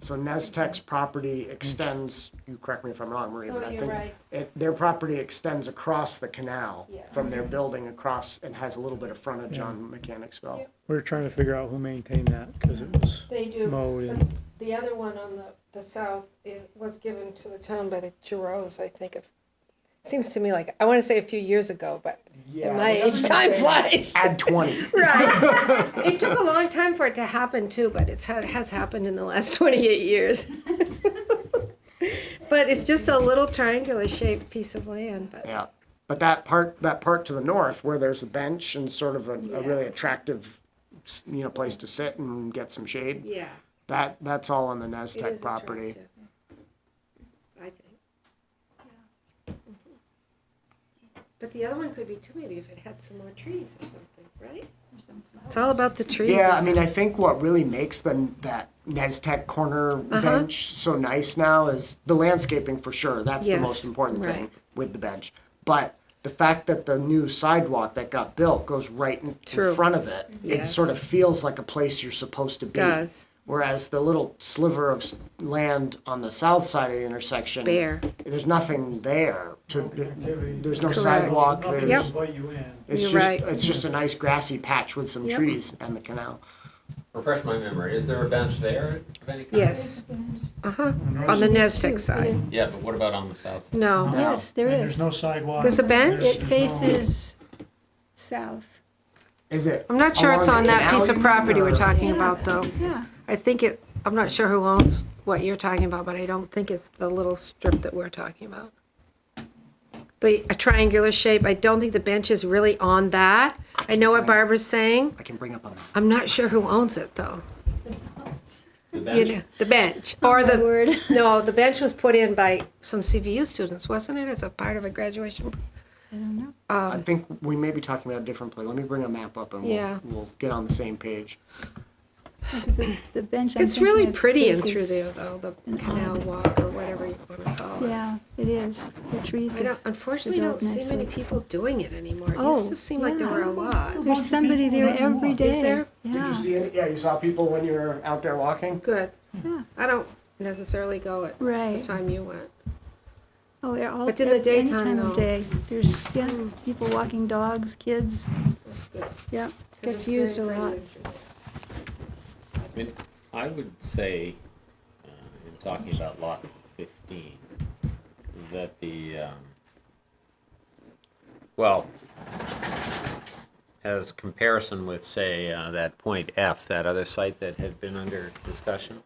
So Nestec's property extends, you correct me if I'm wrong, Maria, Oh, but I you're think right. it, their property extends across the canal Yes. from their building across and has a little bit of frontage on Mechanicsville. Yep. We We're trying to figure out who maintained that, cause it was They do. mowed But and, The other one on the, the south is, was given to the town by the Giroux, I think. It Seems to me like, I want to say a few years ago, but at my age, time flies. Add twenty. Right. It took a long time for it to happen too, but it's, ha- it has happened in the last twenty-eight years. But it's just a little triangular shaped piece of land, but Yeah, but that part, that part to the north where there's a bench and sort of a, a really attractive, s- you know, place to sit and get some shade. yeah, That, that's all on the it Nestec is property. attractive. I think. But the other one could be too, maybe if it had some more trees or something, right? It's all about the trees. Yeah, I mean, I think what really makes the, that Nestec corner Uh-huh. bench so nice now is the landscaping for sure. That's the Yes, most important thing right. with the bench. But the fact that the new sidewalk that got built goes right in, in True. front of it, it Yes. sort of feels like a place you're supposed to be. Does. Whereas the little sliver of s- land on the south side of the intersection, Bare. there's nothing there. To, there's no Correct. sidewalk. There's, Yep. invite you in. It's You're just right. it's just a nice grassy patch with some Yep. trees and the canal. Refresh my memory, is there a bench there of any kind? uh, Yes, uh-huh, on the Nestec side, Yeah, but what about on the south side? no, Yes, there And there's is. no sidewalk. There's a bench? there's- It there's no- faces south. Is it? I'm not sure it's along on the that canal piece of even, property we're or- talking about though. Yeah, I think it, I'm not sure who owns what you're talking about, but I don't think it's the little strip that we're talking about. The a triangular shape, I don't think the bench is really on that. I know what Barbara's saying. I can bring up a map. I'm not sure who owns it though. The You bench? know, the bench or my the, word. no, the bench was put in by some CVU students, wasn't it? As a part of a graduation. I don't know. I think we may be talking about a different place. Let me bring a map up and Yeah. we'll, we'll get on the same page. Because the- The bench. I'm It's really thinking of pretty in through faces- there though, the canal walk or whatever you want to call it. Yeah, it is. The trees. I are- don't, unfortunately, develop don't see many nicely. people doing it anymore. It Oh, used to seem like there were a lot. There's somebody there every day. Is there? Yeah. any? Yeah, you saw people when you were out there walking? Good. Yeah. I don't necessarily go at the Right. time you went. Oh, they're all. But in the ev- any daytime, time of though. Hmm. day. There's, yeah, people walking dogs, kids. Yeah, gets used a lot. I mean, I would say, uh, in talking about lot fifteen, that the, um, well, as comparison with, say, uh, that point F, that other site that had been under discussion,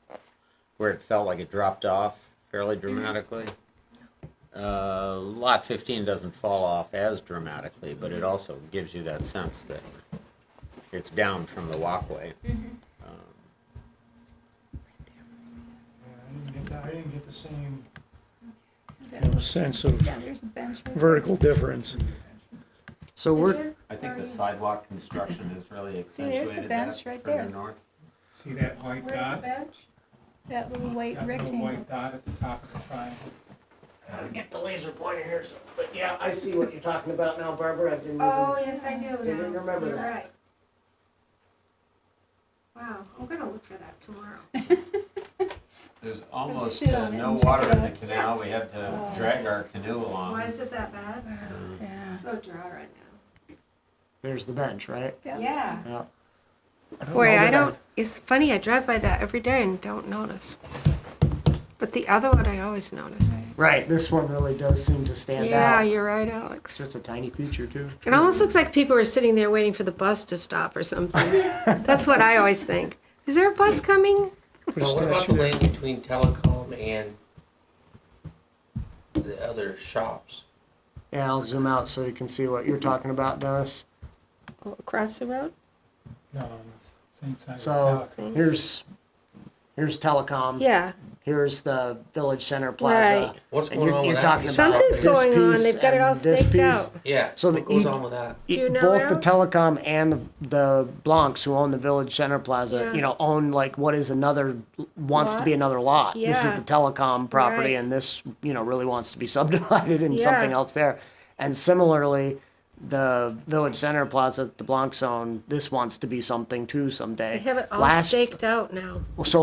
where it felt like it dropped off fairly dramatically. Uh, lot fifteen doesn't fall off as dramatically, but it also gives you that sense that it's down from the walkway. Yeah, I didn't get that- I didn't get the same. you know, sense of there's a bench. vertical difference. So we're I think the sidewalk construction has really See, there's the accentuated that bench right there. further north. See that white dot? bench? That little white That little white dot at the top of the triangle? I get the laser pointer here, so, but yeah, I see what you're talking about now, Barbara. I didn't Oh, yes, I do now. Didn't remember You're that. right. Wow, I'm gonna look for that tomorrow. There's almost sit uh, on it no and check water it Oh. in the out. canal, we have to drag our canoe along. Why is it that bad? Yeah. It's so dry right There's the bench, right? now. Yeah. Yeah. Yeah. don't know Boy, I that don't, it's funny, I drive by that every day and don't notice. But the other one I always notice. Right, this one really does seem to stand Yeah, out. you're right, Alex. It's just a tiny feature too. It almost looks like people are sitting there waiting for the bus to stop or something. That's what I always think. Is there a bus coming? Put a Well, what about the statue there. lane between telecom and the other shops? Yeah, I'll zoom out so you can see what you're talking about, Dennis. Oh, Across the road? No, on the same side. of the So house. Thanks. here's here's telecom. Yeah. Here's the Village Center Plaza. Right. What's And going you're- on you're with talking that? about Something's this going on. piece They've got it and all this staked piece. out. Yeah, So what the goes e- on with that? E- you know Both the Alex? telecom and the Blancs who own the Village Center Plaza, Yeah. you know, own like what is another wants to be Lot. another lot. This is Yeah. the telecom property, Right. and this you know really wants to be subdivided and Yeah. something else there. And similarly, the Village Center Plaza, the Blancs own, this wants to be something too someday. They have it all Last staked out now. so